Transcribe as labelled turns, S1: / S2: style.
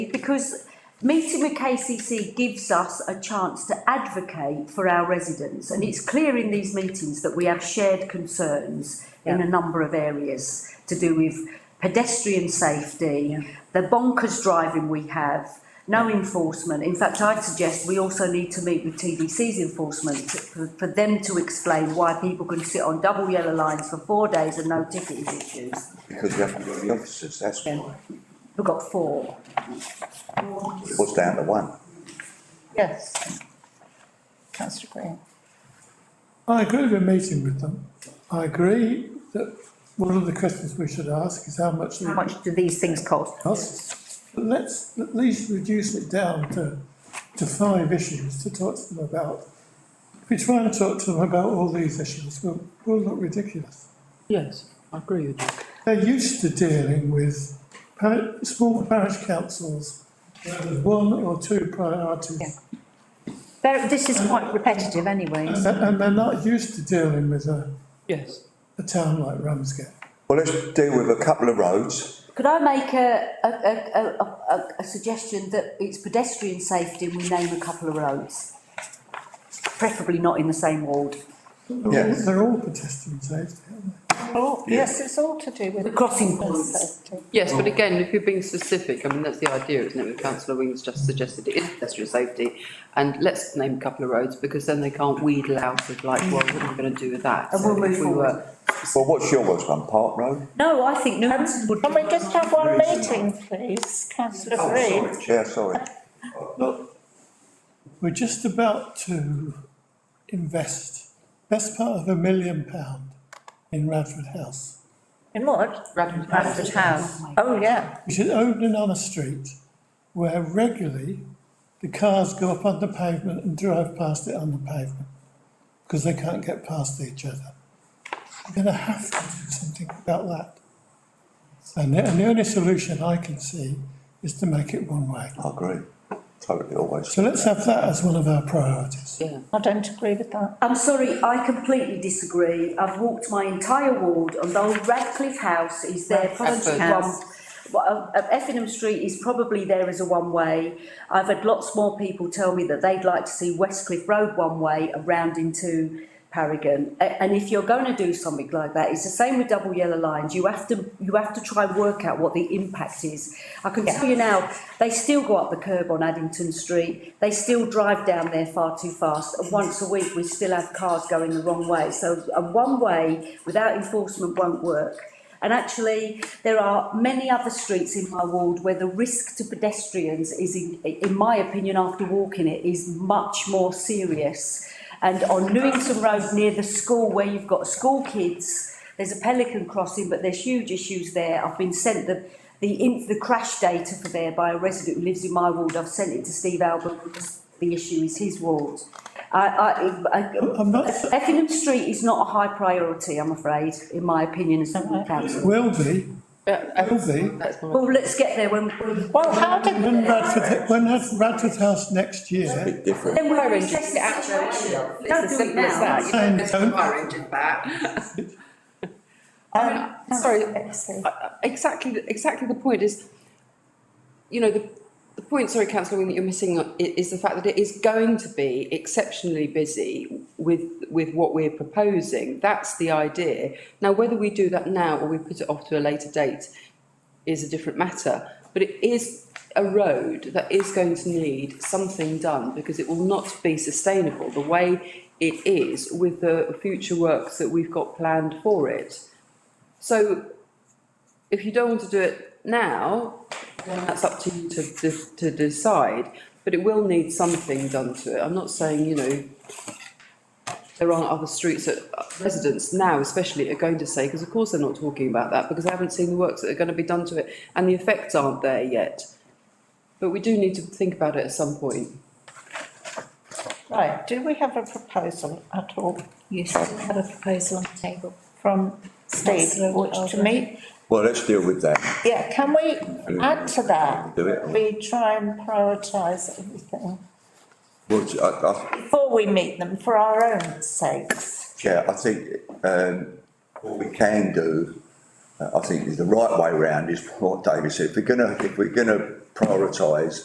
S1: Because meeting with KCC gives us a chance to advocate for our residents, and it's clear in these meetings that we have shared concerns in a number of areas to do with pedestrian safety, the bonkers driving we have, no enforcement. In fact, I'd suggest we also need to meet with TDC's enforcement to- for, for them to explain why people can sit on double yellow lines for four days and no ticket is issued.
S2: Because we haven't got the officers, that's why.
S1: We've got four.
S2: It was down to one.
S1: Yes.
S3: Councillor Green.
S4: I agree with meeting with them. I agree that one of the questions we should ask is how much
S3: How
S4: they
S3: much do these things cost?
S4: cost. But let's at least reduce it down to, to five issues to talk to them about. If we try and talk to them about all these issues, we'll, we'll look ridiculous.
S5: Yes, I agree with you.
S4: They're used to dealing with par- small parish councils, where there's one or two priorities.
S3: There, this is quite repetitive anyway.
S4: And, and they're not used to dealing with a,
S5: Yes.
S4: a town like Ramsgate.
S2: Well, let's deal with a couple of roads.
S1: Could I make a, a, a, a, a, a suggestion that it's pedestrian safety and we name a couple of roads? Preferably not in the same ward.
S4: They're all,
S2: Yes.
S4: they're all eh? pedestrian safety, aren't they?
S6: Oh,
S3: Yes, it's all to do with.
S1: The crossing points.
S5: Yes, but again, if you're being specific, I mean, that's the idea, isn't it? What councillor Wing's just suggested, it is pedestrian safety. And let's name a couple of roads because then they can't wheedle out of like, well, what are we going to do with that?
S1: And we'll
S5: So
S1: move
S5: if we
S1: forward.
S5: were-
S2: Well, what's your worst one? Park Road?
S1: No, I think Newton would.
S6: Can we just have one meeting, please, councillor
S2: Oh,
S6: Green?
S2: sorry, Chair, sorry.
S4: Look, we're just about to invest best part of a million pound in Radford House,
S6: In what?
S5: Radford House.
S3: Bradford House.
S6: Oh, yeah.
S4: which is opening on a street where regularly the cars go up on the pavement and drive past it on the pavement because they can't get past each other. We're going to have to do something about that. And the, and the only solution I can see is to make it one way.
S2: I agree. Totally always.
S4: So let's have that as one of our priorities.
S5: Yeah.
S6: I don't agree with that.
S1: I'm sorry, I completely disagree. I've walked my entire ward, and though Radcliffe House is there probably
S5: Radcliffe
S1: one.
S3: House.
S1: Well, uh, uh, Effingham Street is probably there as a one-way. I've had lots more people tell me that they'd like to see Westcliff Road one-way around into Paragon. A- And if you're going to do something like that, it's the same with double yellow lines. You have to you have to try and work out what the impact is. I can tell you now, they still go up the curb on Addington Street. They still drive down there far too fast. And once a week, we still have cars going the wrong way. So a one-way without enforcement won't work. And actually, there are many other streets in my ward where the risk to pedestrians is, in, in my opinion, after walking it, is much more serious. And on Newington Road near the school, where you've got school kids, there's a pelican crossing, but there's huge issues there. I've been sent the the, in, the crash data for there by a resident who lives in my ward. I've sent it to Steve Albert because the issue is his ward. I, I, I,
S4: I'm not-
S1: Effingham Street is not a high priority, I'm afraid, in my opinion, as a council.
S4: Will be,
S5: Yeah,
S4: will be,
S5: that's my.
S1: Well, let's get there when, when-
S6: Well, how did, um,
S4: when Radford, when Rad- Radford House next year,
S2: Bit different.
S1: then we're in a situation. Don't do it now.
S4: saying don't-
S3: Um,
S6: uh,
S5: Sorry,
S3: sorry.
S5: I- I- exactly, the- exactly the point is, you know, the, the point, sorry, councillor Wing, that you're missing on- i- is the fact that it is going to be exceptionally busy with, with what we're proposing. That's the idea. Now, whether we do that now or we put it off to a later date is a different matter, but it is a road that is going to need something done because it will not be sustainable the way it is with the future works that we've got planned for it. So if you don't want to do it now, then that's up to you to, to, to decide, but it will need something done to it. I'm not saying, you know, there aren't other streets that uh, residents now especially are going to say, because of course they're not talking about that, because they haven't seen the works that are going to be done to it, and the effects aren't there yet. But we do need to think about it at some point.
S6: right, do we have a proposal at all
S3: Yes, we have a proposal on the table.
S6: from Steve, which to me,
S2: Well, let's deal with that.
S6: yeah, can we add to that?
S2: Do it.
S6: We try and prioritise everything
S2: Well, I, I,
S6: before we meet them for our own sakes.
S2: Chair, I think, um, what we can do, uh, I think is the right way round is what David said. If we're gonna, if we're gonna prioritise